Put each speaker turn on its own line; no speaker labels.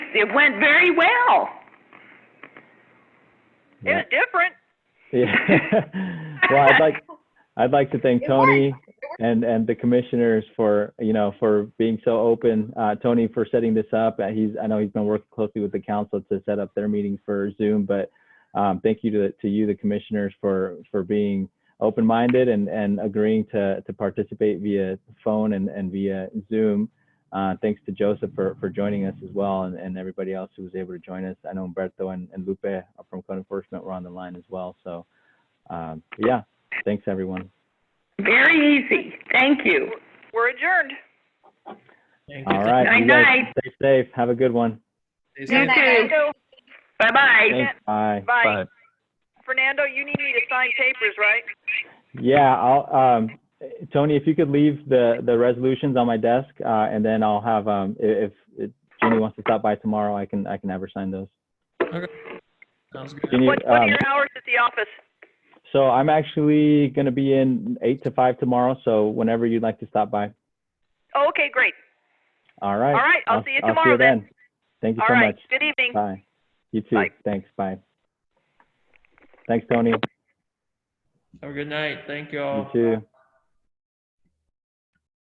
it went very well.
It was different.
Yeah. Well, I'd like, I'd like to thank
It
Tony
worked.
and, and the commissioners for, you know, for being so open. Uh, Tony for setting this up. Uh, He's, I know he's been working closely with the council to set up their meeting for Zoom, but um, thank you to, to you, the commissioners, for, for being open-minded and, and agreeing to, to participate via phone and, and via Zoom. Uh, thanks to Joseph for, for joining us as well and, and everybody else who was able to join us. I know Umberto and, and Lupe from code enforcement were on the line as well. So, um, yeah, thanks everyone.
Very easy. Thank you.
We're adjourned.
All right. you guys
Night-night.
Stay safe. Have a good one.
You too.
Fernando,
Bye-bye.
Thanks. Bye.
bye. Fernando, you need me to sign papers, right?
Yeah, I'll, um, Tony, if you could leave the, the resolutions on my desk, uh, and then I'll have, um, i- if, if Jenny wants to stop by tomorrow, I can, I can have her sign those.
Sounds good.
Jenny,
What, what are
um,
your hours at the office?
so I'm actually going to be in eight to five tomorrow. So whenever you'd like to stop by.
Oh, okay, great.
All right.
All right, I'll see you tomorrow then.
Thank you
All
so
right,
much.
good evening.
Bye. You too.
Bye.
Thanks. Bye. Thanks, Tony.
Have a good night. Thank you
You
all.
too.